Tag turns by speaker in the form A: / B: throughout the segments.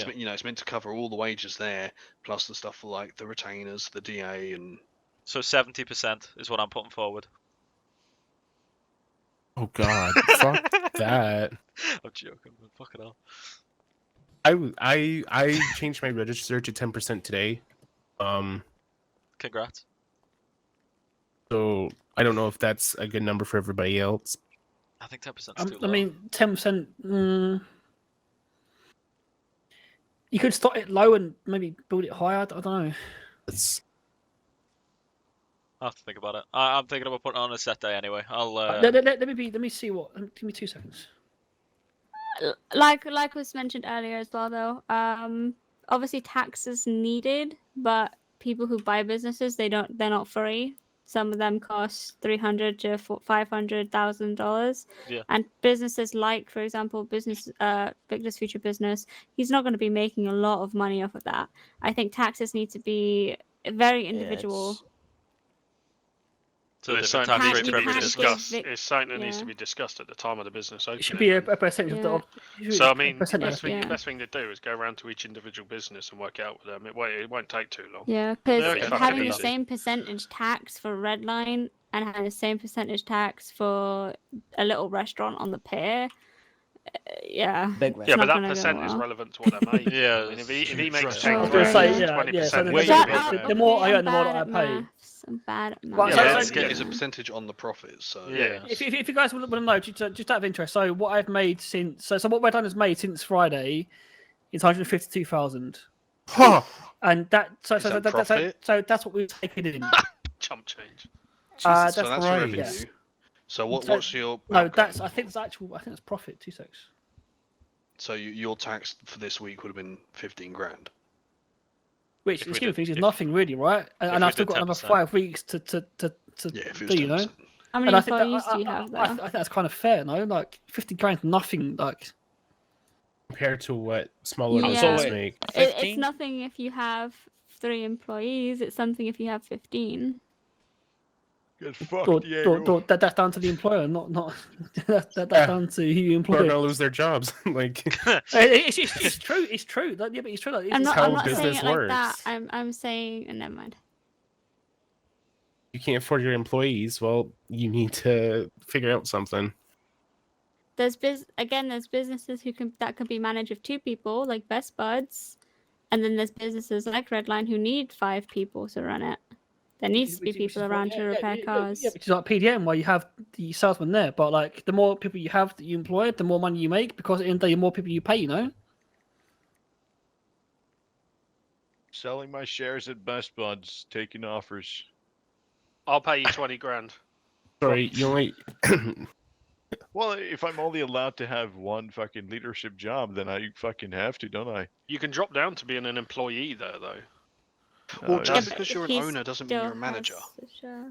A: It's meant- you know, it's meant to cover all the wages there, plus the stuff for like the retainers, the DA, and
B: So seventy percent is what I'm putting forward.
C: Oh God, fuck that.
B: I'm joking, but fucking hell.
C: I w- I I changed my register to ten percent today. Um,
B: Congrats.
C: so I don't know if that's a good number for everybody else.
B: I think ten percent.
D: Um, I mean, ten percent. Mm, you could start it low and maybe build it higher. I don't know.
C: It's
B: I have to think about it. I, I'm thinking about putting it on a set day anyway. I'll. Uh,
D: let, let- let- let me be. Let me see what. um, Give me two seconds.
E: L- like like was mentioned earlier as well though um obviously tax is needed but people who buy businesses they don't they're not free some of them cost 300 to fo- 500000 dollars
B: Yeah.
E: and businesses like for example business uh victor's future business he's not going to be making a lot of money off of that i think taxes need to be very
F: Yeah,
E: individual
F: it's-
B: to a
G: it's
B: different
G: something
B: tax
E: Has
B: rate for
G: that needs to
E: been
G: be
B: every
E: has
B: business.
E: been-
G: discussed.
E: vic-
G: It's something that needs
E: yeah.
G: to be discussed at the time of the business opening.
D: It should be a,
G: then.
D: a percentage of the.
E: Yeah.
D: Of, it should be
G: So I
D: a
G: mean,
D: percentage.
G: best thing,
E: yeah.
G: best thing to do is go around to each individual business and work it out with them. It won't, it won't take too long.
E: Yeah,
G: They're
E: because
G: fucking
E: having the
G: idiots.
E: same percentage tax for red line and having the same percentage tax for a little restaurant on the pier, uh, yeah.
F: Big
G: Yeah,
F: restaurant.
E: not
G: but that
E: gonna go
G: percent is
E: well.
G: relevant to what they're making.
B: Yeah,
G: I mean,
B: it's
G: if he, if he
B: huge
G: makes
B: right
D: I
G: ten
B: now.
D: was gonna
G: grand,
D: say, yeah,
G: twenty
D: yeah, so
G: percent.
D: the-
C: Wait,
E: Shut
C: wait,
E: up,
D: the- the
E: I'm
D: more I
E: really
D: earn, the more
E: bad
D: I
E: at
D: pay.
E: maths, I'm bad at
D: Right,
E: maths.
G: so-
E: Yeah,
G: so-
E: it's
A: it's,
G: yeah.
A: it's a percentage on the profits. So
G: Yeah.
D: If, if, if you guys want to know, just, just out of interest, so what I've made since, so, so what Red Line has made since Friday is 152,000.
C: huh.
D: And that, so,
A: Is
D: so,
A: that
D: that so- so,
A: profit?
D: so that's what we've taken in.
G: Chump change.
D: Uh,
A: so
D: that's
A: that's
C: right,
A: revenue.
D: yes.
A: So what,
D: So-
A: what's your
D: No,
A: outcome?
D: that's, I think it's actual, I think it's profit, two six.
A: so you, your tax for this week would have been fifteen grand.
D: Which,
G: If
D: in the
G: we
D: scheme of
G: did-
D: things, is
G: if-
D: nothing really, right? And,
G: if
D: and
G: we
D: I've still
G: did
D: got another
G: 10%.
D: five weeks to, to, to, to
A: Yeah, if it was
D: do, you know?
A: 10%.
E: How many
D: And I think, that,
E: employees
D: I,
E: do you
D: I-
E: have
D: I, I,
E: though?
D: think that's kind of fair, no? Like, 50 grand, nothing, like,
C: compared to what smaller
E: Yeah.
C: businesses
F: So-
C: make.
E: It, it's
F: 15?
E: nothing if you have three employees. It's something if you have fifteen.
D: or, or, or, that, that's down to the employer, not, not, that, that, that's
C: Yeah.
D: down to who you
C: People are
D: employ.
C: gonna lose their jobs. like
D: Uh, It's, it's, it's true. It's true. Like, yeah, but it's true. Like, it's,
E: I'm
D: it's
E: not.
C: how
E: I'm not saying
C: business
E: it like that.
C: works.
E: I'm. I'm saying. And never mind.
C: you can't afford your employees. Well, you need to figure out something.
E: there's biz again there's businesses who can that can be managed with two people like best buds and then there's businesses like redline who need five people to run it there needs to be
D: which- which
E: people
D: is what-
E: around
D: yeah,
E: to
D: yeah,
E: repair
D: yeah,
E: cars
D: Yeah, which is like PDM, where you have the salesman there. But like, the more people you have that you employ, the more money you make because in the, end, the more people you pay, you know.
H: Selling my shares at Best Buds, taking offers.
G: I'll pay you twenty grand.
C: Sorry, you only
H: Well, if I'm only allowed to have one fucking leadership job, then I fucking have to, don't I?
G: You can drop down to being an employee there, though. Oh,
A: Well,
H: Uh,
A: just
E: but
A: because you're an
E: he's
A: owner doesn't mean
E: Still
A: you're a manager.
E: has to share.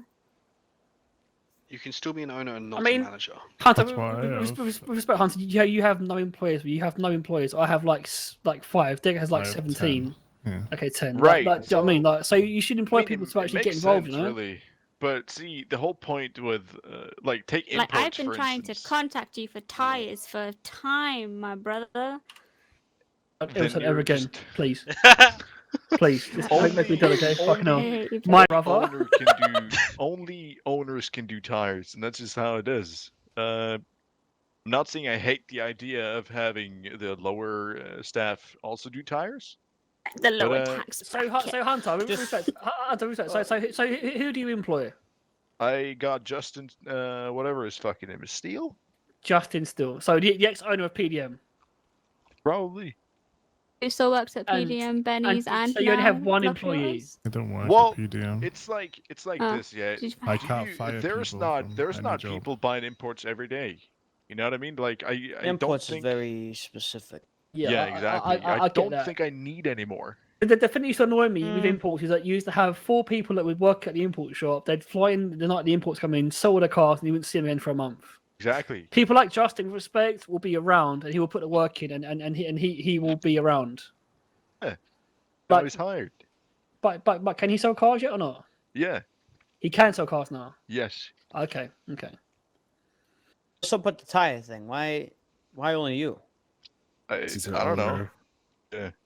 A: You can still be an owner and not
D: mean-
A: a manager.
D: Hunter,
C: That's
D: with-
C: why I
D: with- with
C: have-
D: with- with respect, Hunter, you, you have no employees. You have no employees. I have like s- like five. Dick has like
C: Five,
D: seventeen.
C: yeah.
D: Okay, ten. Like-
H: Right,
D: Like, do you know what I
H: so-
D: mean? Like, so you should employ
H: I mean,
D: people
H: it-
D: to
H: it
D: actually get
H: makes
D: involved.
H: sense,
D: you know.
H: Really. But see, the whole point with uh, like take inputs,
E: like i've been
H: for
E: trying
H: instance,
E: to contact you for tires for time my brother
D: Don't
H: then
D: ever say that ever
H: you're
D: again,
H: just-
D: please, please. Just make, make me do it, okay?
H: Only-
D: Fucking hell.
E: I hate you,
D: My
E: brother.
D: brother.
H: owner can do only owners can do tires, and that's just how it is. Uh, I'm not saying I hate the idea of having the lower uh, staff also do tires.
E: the lower
H: uh,
E: tax
D: So, Hun-
E: bracket.
D: so Hunter, with
F: Just-
D: respect, Hun- Hunter, with respect. So, so, who- so who who do you employ?
H: I got Justin, uh, whatever his fucking name is, Steele,
D: Justin Still. So the, the ex-owner of PDM.
H: probably.
E: who still works at
D: and-
E: pdm benny's
D: and-
E: and,
D: so you only have
E: now
D: one
E: Lucky
D: employee.
E: Ones?
I: I don't work
H: Well,
I: at PDM.
H: It's like it's like
D: Uh,
E: Oh,
H: this, yeah.
E: Did you
I: I
H: Do
I: can't
H: you-
I: fire
H: there's
I: people
H: not
I: from
H: there's
I: any
H: not
I: job.
H: people buying imports every day. You know what I mean? Like I, I don't
F: Imports
H: think.
F: is very specific.
H: Yeah,
D: I- I-
H: exactly.
D: I, I, I, get
H: don't
D: that.
H: think I need any more.
D: The, the thing that used to annoy me with
E: Mm.
D: imports is that you used to have four people that would work at the import shop. They'd fly in the night the imports come in, sell all their cars, and you wouldn't see them again for a month.
H: Exactly.
D: People like Justin, with respect, will be around, and he will put the work in, and and, and he and he, he will be around.
H: But,
D: But-
H: he's hired.
D: But but but can he sell cars yet or not?
H: Yeah.
D: He can sell cars now.
H: Yes.
D: Okay, okay.
F: So, but the tire thing, why, why only you?
H: I,
C: He's an
H: I don't know.
C: owner.